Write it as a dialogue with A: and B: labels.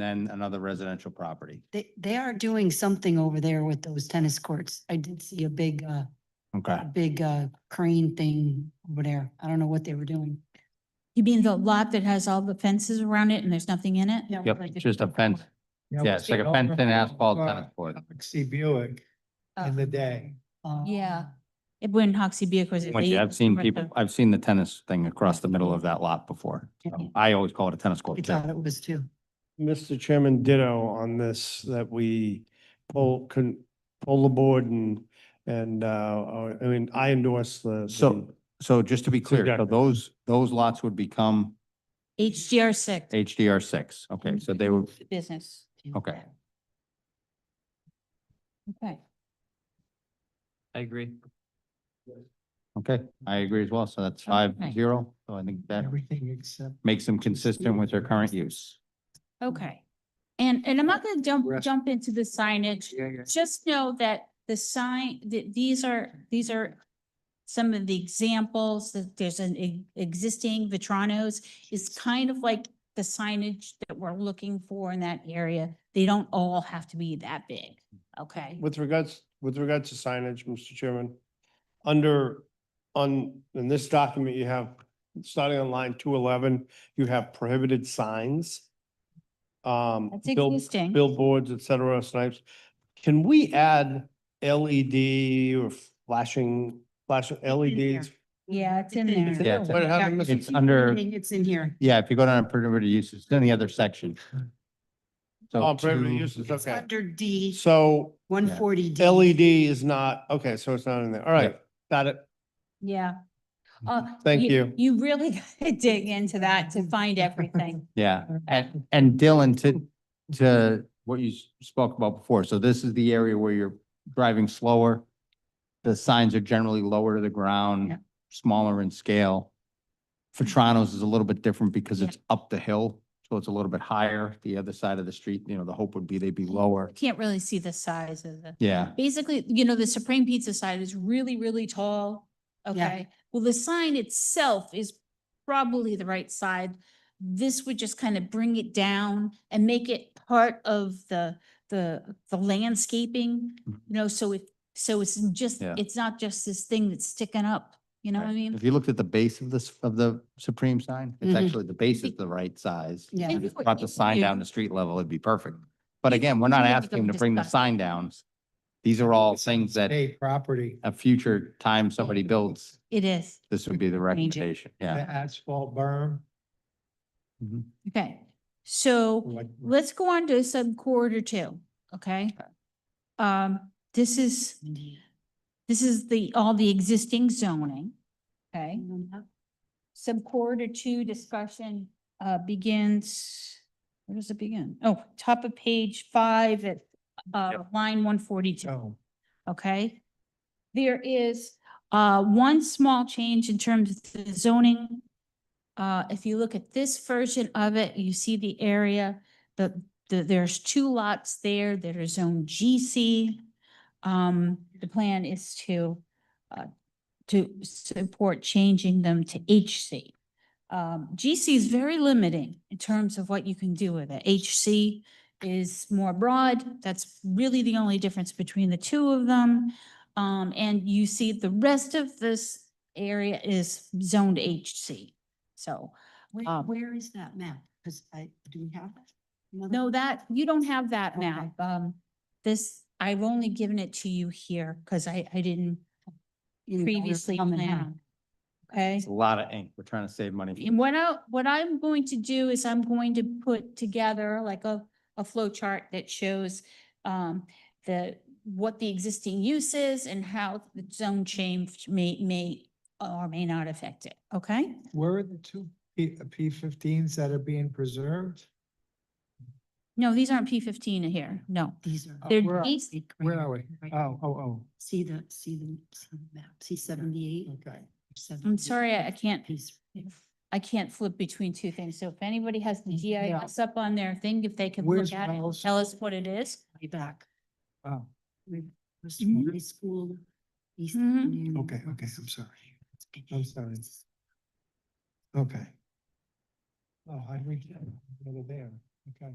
A: then another residential property.
B: They, they are doing something over there with those tennis courts. I did see a big, uh,
A: Okay.
B: a big, uh, crane thing over there. I don't know what they were doing.
C: You mean the lot that has all the fences around it and there's nothing in it?
B: Yeah,
A: Yep,
B: like
A: it's
B: a-
A: just a fence. Yeah, it's like a fence and asphalt tennis court.
D: See Buick in the day.
B: Uh,
C: Oh. Yeah. It wouldn't Hoxie be because.
A: Which I've seen people, I've seen the tennis thing across the middle of that lot before. So I always call it a tennis
B: I
A: court. too.
B: thought it was too.
E: Mr. Chairman, ditto on this, that we pull, can pull the board and, and, uh, or- I mean, I endorse the.
A: So- So just to be clear, so
E: Exactly.
A: those, those lots would become
C: HDR six.
A: HDR six. Okay, so they would,
C: Business.
A: okay.
C: Okay.
F: I agree.
A: Okay, I agree as well. So that's five
C: Okay.
A: zero. So I think that
D: Everything except.
A: makes them consistent with their current use.
C: Okay. And, and I'm not gonna jump,
D: Rest-
C: jump into the signage.
D: Yeah, yeah.
C: Just know that the sign, that these are, these are some of the examples that there's an e- existing Vitrano's is kind of like the signage that we're looking for in that area. They don't all have to be that big, okay?
E: With regards, with regards to signage, Mr. Chairman, under, on, in this document, you have, starting on line two eleven, you have prohibited signs. Um,
C: That's
E: bill-
C: existing.
E: billboards, et cetera, snipes. Can we add LED or flashing, flashing E LEDs?
C: Yeah, it's in
B: It's
C: there.
A: Yeah, it's-
E: What happened, Mr.
A: It's under,
B: It's in here.
A: yeah, if you go down to prohibited uses, it's in the other section. So
E: Oh, prohibited
A: two-
E: uses,
B: It's
E: okay.
B: under D,
E: So
B: one forty E D.
E: LED E is not, okay, so it's not in there. All right, got it.
C: Yeah.
A: Mm-hmm.
C: Uh,
E: Thank you.
C: You really gotta dig into that to find everything.
A: Yeah, and, and Dylan, to, to what you s- spoke about before, so this is the area where you're driving slower. The signs are generally lower to the
B: Yeah.
A: ground, smaller in scale. Fatrano's is a little bit different because
C: Yeah.
A: it's up the hill, so it's a little bit higher, the other side of the street, you know, the hope would be they'd be lower.
C: Can't really see the size of the.
A: Yeah,
C: Basically, you know, the Supreme Pizza side is really, really tall. Okay, well, the sign itself is probably the right side. This would just kind of bring it down and make it part of the, the, the landscaping, you
A: Mhm.
C: know, so it, so it's just,
A: Yeah.
C: it's not just this thing that's sticking up, you know what I mean?
A: if you looked at the base of this, of the Supreme sign, it's
B: Mhm.
A: actually, the base is the right size.
B: Yeah.
A: If you brought the sign down to street level, it'd be perfect. But
C: Yeah,
A: again, we're not
C: we have to
A: asking to
C: discuss
A: bring the
C: that.
A: sign down. These are all
D: It's
A: things that
D: Hey, property,
A: a future time somebody builds,
C: It is,
A: this would be the
C: Change it.
A: recommendation,
D: the
A: yeah.
D: asphalt berm.
C: okay. So
D: like-
C: let's go on to sub quarter two, okay? Um, this is, this is the, all the existing zoning, okay?
B: E
C: Sub quarter two discussion, uh, begins, where does it begin? Oh, top of page five at, uh, line one forty-two
D: Oh,
C: okay? There is uh one small change in terms of the zoning. Uh, if you look at this version of it, you see the area, the, the, there's two lots there that are zone GC. Um, the plan is to uh, to support changing them to HC. Um, GC is very limiting in terms of what you can do with it. HC is more broad. That's really the only difference between the two of them. Um, and you see the rest of this area is zoned HC. So,
B: Where,
C: Um,
B: where is that map? Cause I, do we have that? Another-
C: no, that, you don't have that
B: Okay.
C: map. Um, this, I've only given it to you here because I, I didn't
B: You know, we're
C: previously
B: coming
C: plan
B: out.
C: on. Okay?
A: It's a lot of ink, we're trying to save money.
C: And what I, what I'm going to do is I'm going to put together like a, a flow chart that shows um, the, what the existing use is and how the zone change may, may or may not affect it, okay?
D: Where are the two P, uh, P fifteens that are being preserved?
C: No, these aren't P fifteen here, no.
B: These are.
C: They're
D: where are-
C: these-
B: big
D: Where
B: green-
D: are we?
B: right.
D: Oh, oh,
B: See the, see the, see the map, see
D: oh,
B: seventy-eight?
D: okay.
C: I'm sorry, I I can't,
B: Piece.
C: I can't flip between two things, so if anybody has the
D: Yeah.
C: GIS up on their thing, if they can
D: Where's
C: look at it,
D: Wells?
C: tell us what it is.
B: Way back.
D: Oh,
B: We was
C: Mhm.
B: high school. East
C: Mhm.
B: Union,
D: okay, okay,
B: West
D: I'm sorry.
B: Pittsburgh.
D: I'm sorry. Okay. Oh, I read, over there, okay.